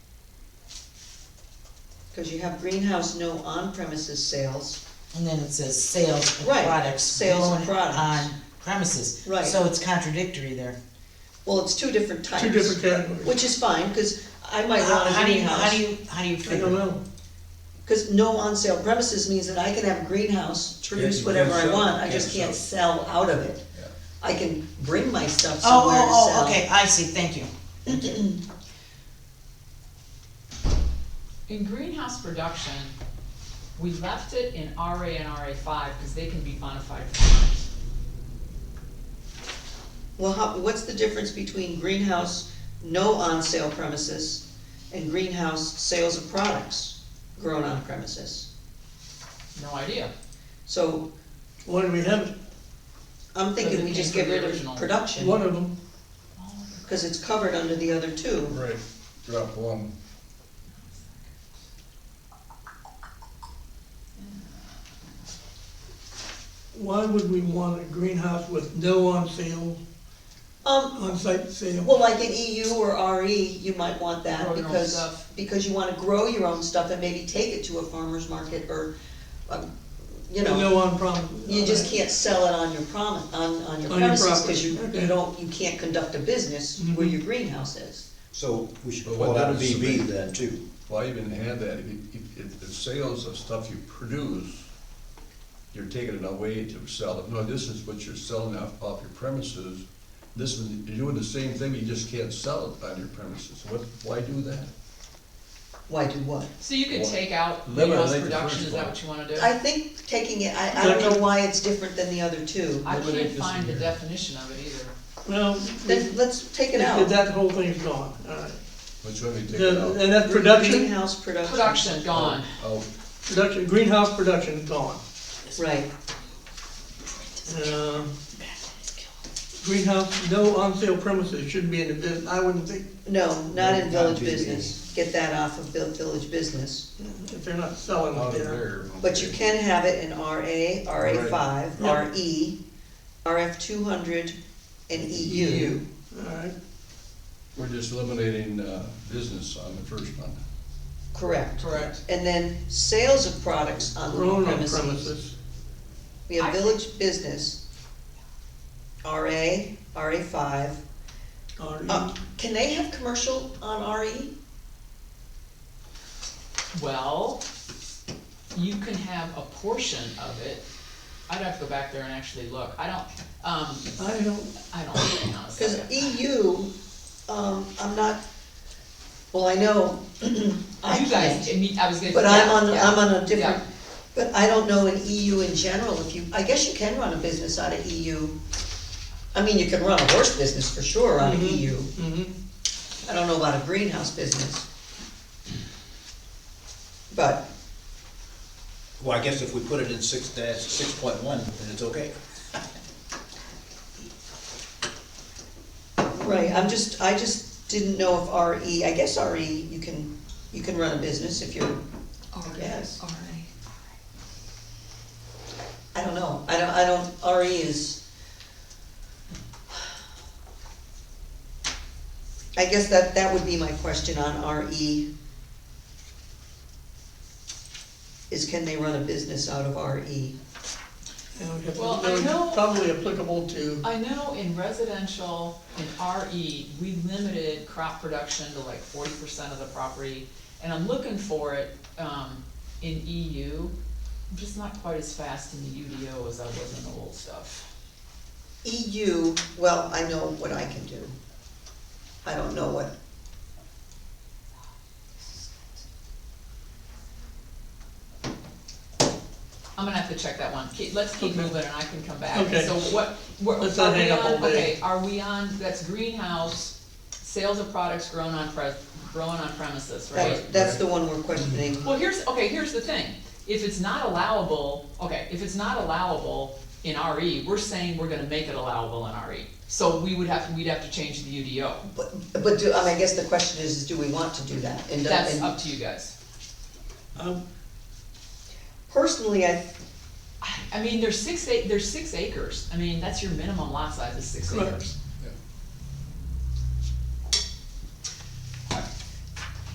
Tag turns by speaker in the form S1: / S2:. S1: Cause you have greenhouse, no on-premises sales,
S2: And then it says sales of
S1: Right,
S2: products
S1: sales of
S2: grown
S1: products.
S2: on premises.
S1: Right.
S2: So it's contradictory there.
S1: well, it's two different types.
S3: two different categories.
S1: Which is fine, cause I might
S2: How
S1: want a
S2: how do you, how do
S1: greenhouse,
S2: you, how do you
S3: I
S2: figure?
S3: don't know.
S1: cause no on-sale premises means that I can have a greenhouse, to
S4: Yeah,
S1: produce
S4: you
S1: whatever
S4: can't
S1: I
S4: sell-
S1: want, I
S4: can't
S1: just can't
S4: sell.
S1: sell out of it.
S4: Yeah.
S1: I can bring my stuff
S2: Oh,
S1: somewhere to sell.
S2: oh, oh, okay, I see, thank you.
S5: In greenhouse production, we left it in RA and RA five, cause they can be modified farms.
S1: Well, how, what's the difference between greenhouse, no on-sale premises, and greenhouse sales of products grown on premises?
S5: No idea.
S1: So,
S3: Why do we have
S1: I'm thinking we
S5: Doesn't
S1: just
S5: came
S1: get
S5: from the
S1: rid
S5: original.
S1: of production,
S3: one of them?
S1: cause it's covered under the other two.
S4: Right, drop one.
S3: Why would we want a greenhouse with no on sale,
S1: Um,
S3: on-site sale?
S1: well, like in EU or RE, you might want that,
S5: Grow your own
S1: because,
S5: stuff.
S1: because you wanna grow your own stuff and maybe take it to a farmer's market, or, um, you know.
S3: No on problem.
S1: You just can't sell it on your promise, on, on your
S3: On your
S1: premises,
S3: property,
S1: cause you, you
S3: okay.
S1: don't, you can't conduct a business where
S3: Mhm.
S1: your greenhouse is.
S6: So we should
S4: But
S6: pull
S4: what
S6: out a
S4: does it
S6: BB
S4: mean?
S6: then too.
S4: Well, I even had that, if, you- if, if the sales of stuff you produce, you're taking it away to sell it, no, this is what you're selling off, off your premises. This is, you're doing the same thing, you just can't sell it on your premises, what, why do that?
S1: Why do what?
S5: So you could
S4: Well,
S5: take out
S4: eliminate the first
S5: greenhouse production, is that
S4: one.
S5: what you wanna do?
S1: I think taking it, I, I don't know why it's different than the other two.
S5: I
S4: eliminate
S5: can't
S4: this
S5: find the
S4: here.
S5: definition of it either.
S3: Well,
S1: Then let's take it out.
S3: that whole thing's gone, all right.
S4: Which one do you take it
S3: The-
S4: out?
S3: And that's production,
S1: Greenhouse production.
S5: Production, gone.
S4: Oh,
S3: production, greenhouse production is gone.
S1: Right,
S3: Uh, Greenhouse, no on-sale premises should be in the business, I wouldn't think,
S1: no, not in
S6: Not
S1: village
S6: BB.
S1: business, get that off of vil- village business.
S3: if they're not selling
S4: out
S3: it
S4: of
S3: there.
S4: there.
S1: But you
S4: okay.
S1: can have it in RA, RA five,
S3: Right.
S1: RE, RF two hundred, and E EU.
S3: All right,
S4: We're just eliminating, uh, business on the first one.
S1: Correct.
S3: correct.
S1: And then sales of products on
S3: Grown
S1: the
S3: on
S1: premises.
S3: premises,
S1: We have
S5: I-
S1: village business, RA, RA five.
S3: or
S1: Uh, Can they have commercial on E? RE?
S5: Well, you can have a portion of it. I'd have to go back there and actually look. I don't, um,
S3: I don't,
S5: I don't, hang on a
S1: Cause
S5: second.
S1: EU, um, I'm not, well, I know, I
S5: You guys,
S1: can't,
S5: I mean, I was gonna.
S1: but I'm on,
S5: yeah,
S1: I'm on a
S5: yeah.
S1: different, but I don't know in EU in general if you, I guess you can run a business out of EU. I mean, you can run a horse business for sure out of EU.
S5: Mm-hmm,
S3: mhm.
S1: I don't know about a greenhouse business. But,
S6: Well, I guess if we put it in six dash, six point one, then it's okay.
S1: right, I'm just, I just didn't know if RE, I guess RE, you can, you can run a business if you're, Yes. I don't know, I don't, I don't, RE is. I guess that, that would be my question on E. RE. Is can they run a business out of E? RE?
S3: And we
S5: Well,
S3: have-
S5: I
S3: they're
S5: know-
S3: probably applicable to,
S5: I know in residential, in RE, we limited crop production to like forty percent of the property, and I'm looking for it, um, in EU. I'm just not quite as fast in the UDO as I was in the old stuff.
S1: EU, E well, I know what I can do. I don't know what.
S5: I'm gonna have to check that one. Keep, let's keep
S3: Okay.
S5: moving and I can come back.
S3: Okay.
S5: So what, we're,
S3: Let's not
S5: are we
S3: hang up all
S5: on,
S3: day.
S5: okay, are we on, that's greenhouse, sales of products grown on pres, grown on premises, right?
S1: That, that's the one we're questioning.
S5: Well, here's, okay, here's the thing, if it's not allowable, okay, if it's not allowable in RE, we're saying we're gonna make it allowable in RE. So we would have, we'd have to change the UDO,
S1: But, but do, I mean, I guess the question is, is do we want to do that? And, do-
S5: that's
S1: and
S5: up to you guys.
S3: um,
S1: personally, I,
S5: I mean, there's six, ac- there's six acres, I mean, that's your minimum lot size is six
S3: Correct.
S5: acres.